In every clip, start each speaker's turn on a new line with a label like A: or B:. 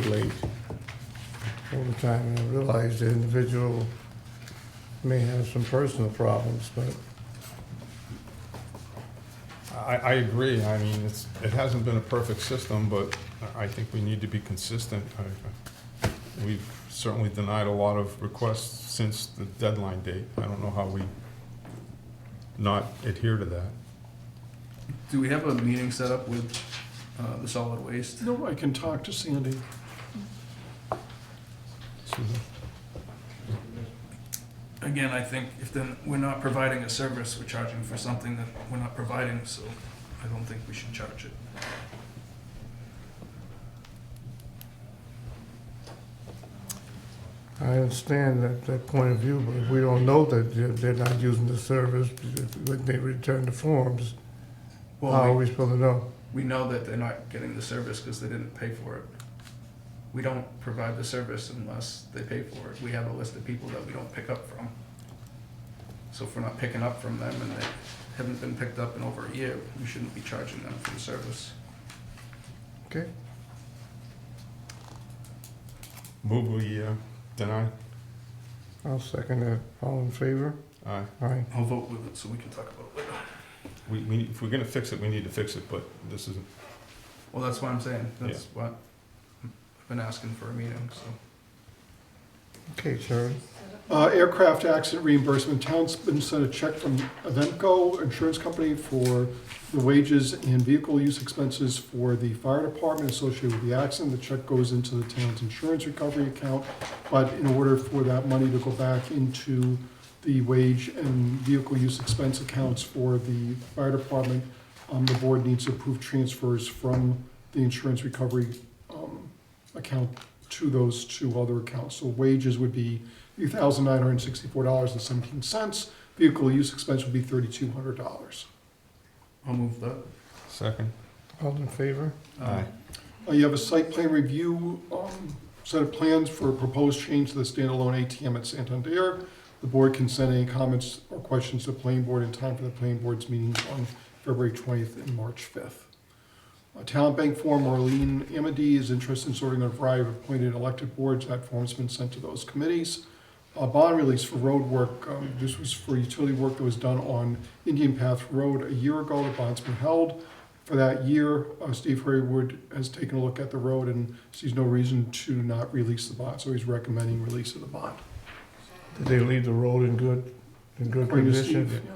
A: late all the time, and I realize the individual may have some personal problems, but I, I agree, I mean, it's, it hasn't been a perfect system, but I think we need to be consistent. I- I- We've certainly denied a lot of requests since the deadline date. I don't know how we not adhere to that.
B: Do we have a meeting set up with uh, the solid waste?
C: No, I can talk to Sandy.
A: Susan?
B: Again, I think if then we're not providing a service, we're charging for something that we're not providing, so I don't think we should charge it.
A: I understand that, that point of view, but if we don't know that they're, they're not using the service, when they return the forms, how are
B: Well, we,
A: Uh, we supposed to know?
B: we know that they're not getting the service because they didn't pay for it. We don't provide the service unless they pay for it. We have a list of people that we don't pick up from. So if we're not picking up from them and they haven't been picked up in over a year, we shouldn't be charging them for the service.
A: Okay,
D: Move we uh, deny?
A: I'll second that. All in favor?
D: Aye.
A: Aye.
B: I'll vote with it so we can talk about it later.
D: Uh, We, we, if we're gonna fix it, we need to fix it, but this isn't,
B: Well, that's what I'm saying, that's what I've been asking for a meeting, so.
A: Okay, Charlie.
C: Uh, Aircraft accident reimbursement, town's been sent a check from Avemco Insurance Company for the wages and vehicle use expenses for the fire department associated with the accident. The check goes into the town's insurance recovery account, but in order for that money to go back into the wage and vehicle use expense accounts for the fire department, um, the board needs to approve transfers from the insurance recovery um, account to those two other accounts. So wages would be three thousand nine hundred and sixty-four dollars and seventeen cents. Vehicle use expense would be thirty-two hundred dollars.
B: I'll move that. Um,
D: second? Uh,
A: All in favor?
D: Aye.
C: Uh, you have a site plan review, um, set of plans for a proposed change to the standalone ATM at Santander. The board can send any comments or questions to the planning board in time for the planning board's meetings on February twentieth and March fifth. A talent bank form, Marlene Amity is interested in sorting a variety of appointed elected boards. That form's been sent to those committees. A bond release for road work, um, this was for utility work that was done on Indian Path Road a year ago. The bond's been held for that year. Uh, Steve Hurrywood has taken a look at the road and sees no reason to not release the bond, so he's recommending release of the bond.
A: Did they leave the road in good, in good
C: According to Steve,
A: condition?
C: yeah.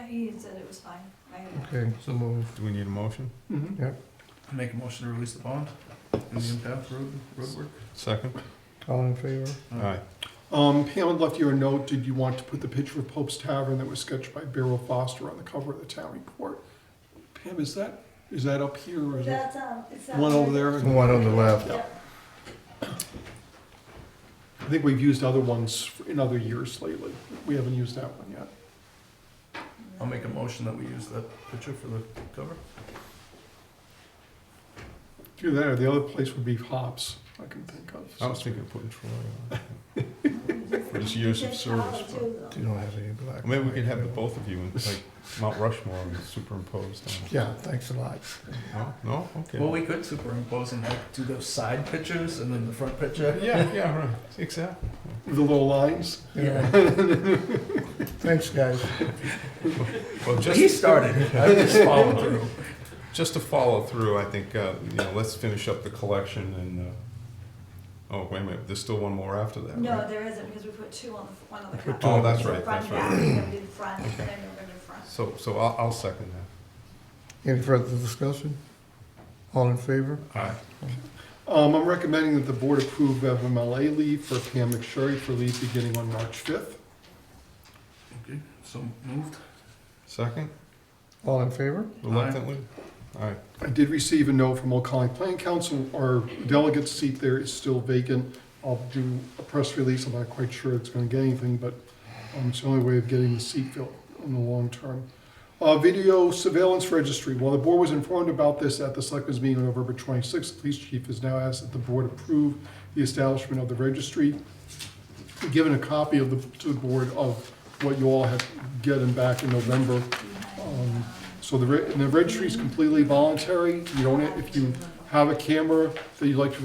E: Yeah, he said it was fine. I have
A: Okay, so moved.
D: Do we need a motion?
C: Mhm.
B: I Make a motion to release the bond in the impact road, Uh, road work.
D: Second?
A: All in favor?
D: Aye.
C: Um, Pam had left you a note, did you want to put the picture of Pope's Tavern that was sketched by Beryl Foster on the cover of the town report? Pam, is that, is that up here or is that
E: That's, um, it's. that
C: one over
E: one.
C: there?
A: The one on the left.
E: Yeah.
C: I think we've used other ones in other years lately. We haven't used that one yet.
B: I'll make a motion that we use that picture for the cover.
C: Do that, or the other place would be Hops, I can think of.
D: I was thinking of putting Troy on. For his years of
E: Just follow
D: service. but-
E: too, though.
A: You don't have any black.
D: Maybe we could have the both of you, and like Mount Rushmore and superimposed on.
A: Yeah, thanks a lot.
D: No, no,
B: Well,
D: okay.
B: we could superimpose and like do those side pictures and then the front picture.
D: Yeah, yeah, right, exactly.
C: The little lines.
B: Yeah,
A: Thanks, guys.
D: Well,
B: he
D: just,
B: started, it. I just followed through.
D: just to follow through, I think, uh, you know, let's finish up the collection and, uh, oh, wait a minute, there's still one more after that,
E: No,
D: right?
E: there isn't, because we put two on the, one on the
A: We put
E: front.
A: two on
D: Oh, that's
E: So
D: right, that's
E: Front back,
D: right.
E: we're gonna do the front, and then we're gonna do front.
D: So, so I'll, I'll second
A: Any further discussion? All in favor?
D: that. Aye.
C: Um, I'm recommending that the board approve FMLA leave for Pam McSherry for leave beginning on March fifth.
B: Okay, so moved.
D: Second?
A: All in favor?
D: Reluctantly? Aye.
C: I did receive a note from Old Colony Planning Council, our delegate seat there is still vacant. I'll do a press release, I'm not quite sure it's gonna get anything, but um, it's the only way of getting the seat filled in the long term. Uh, Video surveillance registry, while the board was informed about this at the selectmen's meeting on November twenty-sixth, the police chief has now asked that the board approve the establishment of the registry. Given a copy of the, to the board of what you all have gotten back in November. Um, So the, re- and the registry is completely voluntary, you don't, if you have a camera that you'd like to